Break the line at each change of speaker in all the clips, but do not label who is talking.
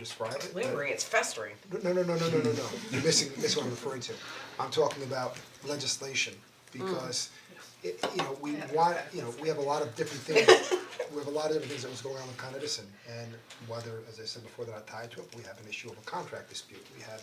describe it. but-
lingering, it's festering.
No, no, no, no, no, no, no, you're missing, missing what I'm referring to. I'm talking about legislation, because
Mm.
it, you know, we want, you know, we have a lot of different things. We have a lot of different things that was going on with Con Edison, and whether, as I said before, they're not tied to it, we have an issue of a contract dispute. We have,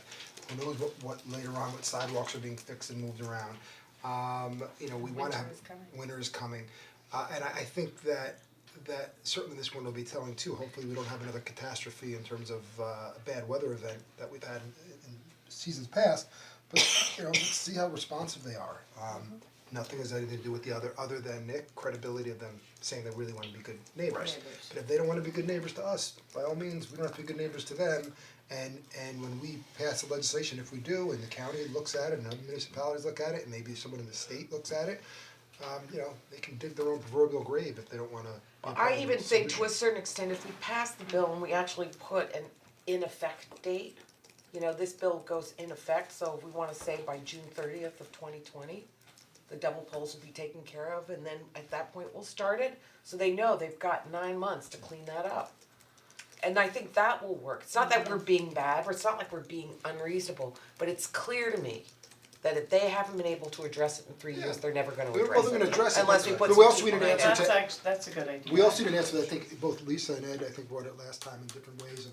who knows what, what later on, what sidewalks are being fixed and moved around. Um, you know, we wanna have,
Winter is coming.
winter is coming. Uh, and I, I think that, that certainly this one will be telling too, hopefully we don't have another catastrophe in terms of, uh, a bad weather event that we've had in, in seasons past. But, you know, let's see how responsive they are. Um, nothing has anything to do with the other, other than Nick, credibility of them saying they really wanna be good neighbors.
Neighbors.
But if they don't wanna be good neighbors to us, by all means, we don't have to be good neighbors to them. And, and when we pass the legislation, if we do, and the county looks at it, and other municipalities look at it, and maybe someone in the state looks at it, um, you know, they can dig their own proverbial grave if they don't wanna. be a part
I
of the
even think to
solution.
a certain extent, if we pass the bill and we actually put an in effect date, you know, this bill goes in effect, so if we wanna say by June thirtieth of twenty twenty, the double poles will be taken care of, and then at that point, we'll start it, so they know they've got nine months to clean that up. And I think that will work, it's not that we're being bad, or it's not like we're being unreasonable, but it's clear to me that if they haven't been able to address it in three years,
Yeah.
they're never gonna
They're
address
probably gonna
it,
address it,
unless
but-
we put
but we
some
also need
people
an
in it.
answer
That's
to-
act- that's a good idea.
We also didn't answer, that, I think both Lisa and Ed, I think brought it last time in different ways,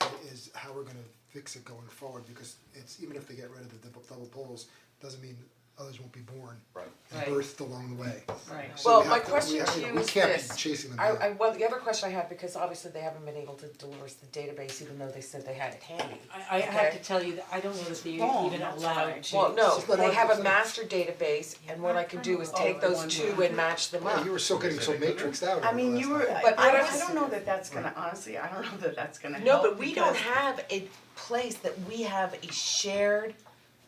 and is how we're gonna fix it going forward, because it's, even if they get rid of the double, double poles, doesn't mean others won't be born.
Right.
And
Right.
birthed along the way.
Right.
So we
Well,
have
my
to- we
question
have- you
to
know,
you is
We can't
this,
be chasing them
I
down.
I, well, the other question I have, because obviously they haven't been able to deliver us the database even though they said they had it handy.
I I have
Okay.
to tell you that I don't know that they're
Wrong,
even
that's
allowed
right.
to.
Well, no,
It's not
they have a
100%.
master database and what I can do is
Oh,
take those
one
two
more.
and match them
Wow,
up.
you were still getting so matrixed out over
I
the
mean,
last
you were,
time.
I
But I
I
was-
don't know that that's gonna, honestly, I don't know that that's gonna
No,
help
but we don't
because-
have a place that we have a shared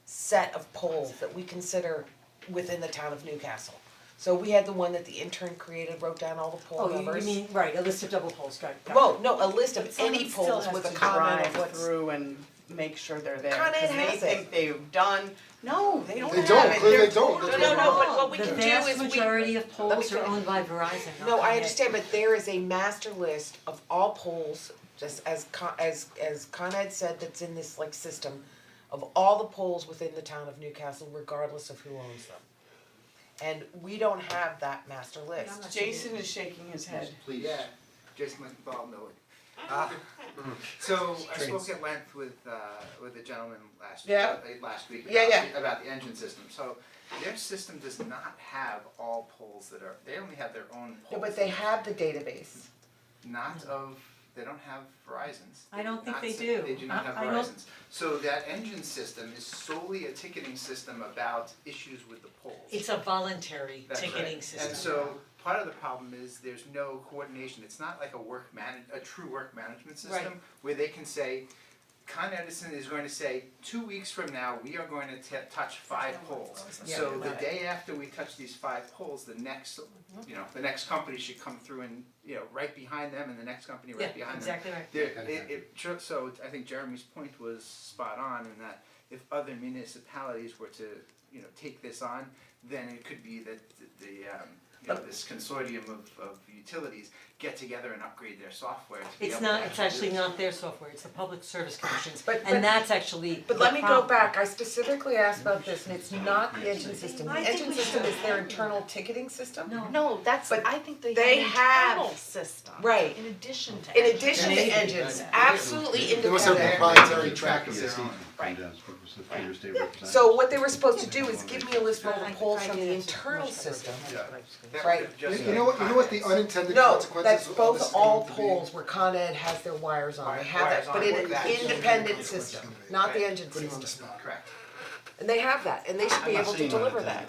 set of polls that we consider within the town of Newcastle. So we had the one that the intern created, wrote down all the poll
Oh, you-
numbers.
you mean, right, a list of double poles, right, got it.
Well, no, a list of
Someone
any
still
polls
has
with
to
a comment of
drive
what's
through and make sure they're there,
Con Ed
'cause they
has it.
think they've done, no, they don't
They
have
don't,
it.
clearly
They're
they don't.
totally
That's
No, no, no,
wrong.
but what we
The
can do
vast
is we.
majority of poles
finish.
are owned by Verizon, not
No,
Con
I
Ed.
understand, but there is a master list of all polls, just as Con, as as Con Ed said, that's in this like system of all the polls within the town of Newcastle, regardless of who owns them. And we don't have that master list.
Jason is shaking his head.
Please. Yeah, Jason Lindenthal, Millwood. Uh, so I spoke at length with uh with a gentleman last
Yeah.
uh, last week about
Yeah, yeah.
the- about the engine system. So their system does not have all poles that are they only have their own poles.
have the database.
Not of they don't have Verizon's.
I don't think
Not
they
si-
do.
They do not
I-
have
I don't-
Verizon's. So that engine system is solely a ticketing system about issues with the poles.
It's a voluntary
That's right.
ticketing system.
And so part of the problem is there's no coordination, it's not like a work man, a true work management system
Right.
where they can say, Con Edison is going to say, two weeks from now, we are going to t- touch five poles. So the day after we touch these five poles, the next, you know, the next company should come through and, you know, right behind them and the next company right
Yeah,
behind them.
exactly right.
There, it, it, tr- so I think Jeremy's point was spot on in that if other municipalities were to, you know, take this on, then it could be that th- the, um, you know, this consortium of, of utilities get together and upgrade their software to be
It's
able to
not, it's
actually
actually
do this.
not their software, it's the Public Service Commission's,
But- but-
and that's actually
But
the
let me go
problem.
back, I specifically asked about this and it's not the engine system, the
I think
engine
we
system
should-
is their internal ticketing system?
No.
No, that's,
But
I think they
they
have an
have-
internal system.
right.
In addition to.
In
engine.
addition
Maybe.
to engines, absolutely independent.
They must have
Yeah.
proprietary track of
Yeah.
their own.
Right.
Right.
So what they were supposed to do is give me a list of all the polls from the internal system.
That
Right.
would've
You
just
you know what, you know what the
been
unintended
No,
consequences
that's
of all
both
this is
all
going to be?
polls where Con Ed has their wires on, they have
Wires
that,
on,
but in an
that's-
independent system, not the engine
Putting on
system.
the spot.
Correct.
And they have that, and they should be able to deliver that,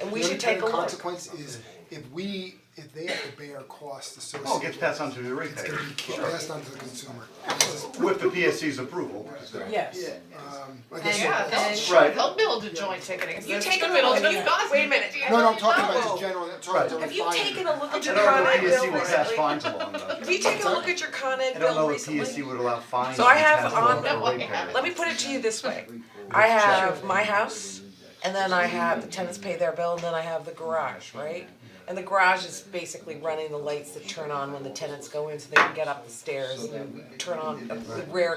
and we should take a
The unintended
look.
consequence is if we, if they have to bear costs associated.
Oh, it gets passed on to the
It's gonna
ratepayer
be kicked- passed on to the consumer.
with the PSC's approval.
Yes.
Um, like I
And-
said,
Yeah,
it's-
they'll,
Right.
they'll build a joint ticketing
You
system.
take a look,
It'll be
at- wait a minute,
No, no, I'm talking
Oh.
about just general, I'm talking about
have you
fire.
taken a look at
I
your
don't know
Con
if
Ed
the
bill
PSC would pass
recently?
fines along though.
Have you taken a look at your Con Ed
I don't
bill
know if
recently?
PSC would allow fines.
So I
to be
have
passed
on-
along to the
Well, yeah.
ratepayer.
Let me put it to you this way, I have my house, and then I have the tenants pay their bill, and then I have the garage, right? And the garage is basically running the lights that turn on when the tenants go in, so they can get up the stairs and turn on, the rare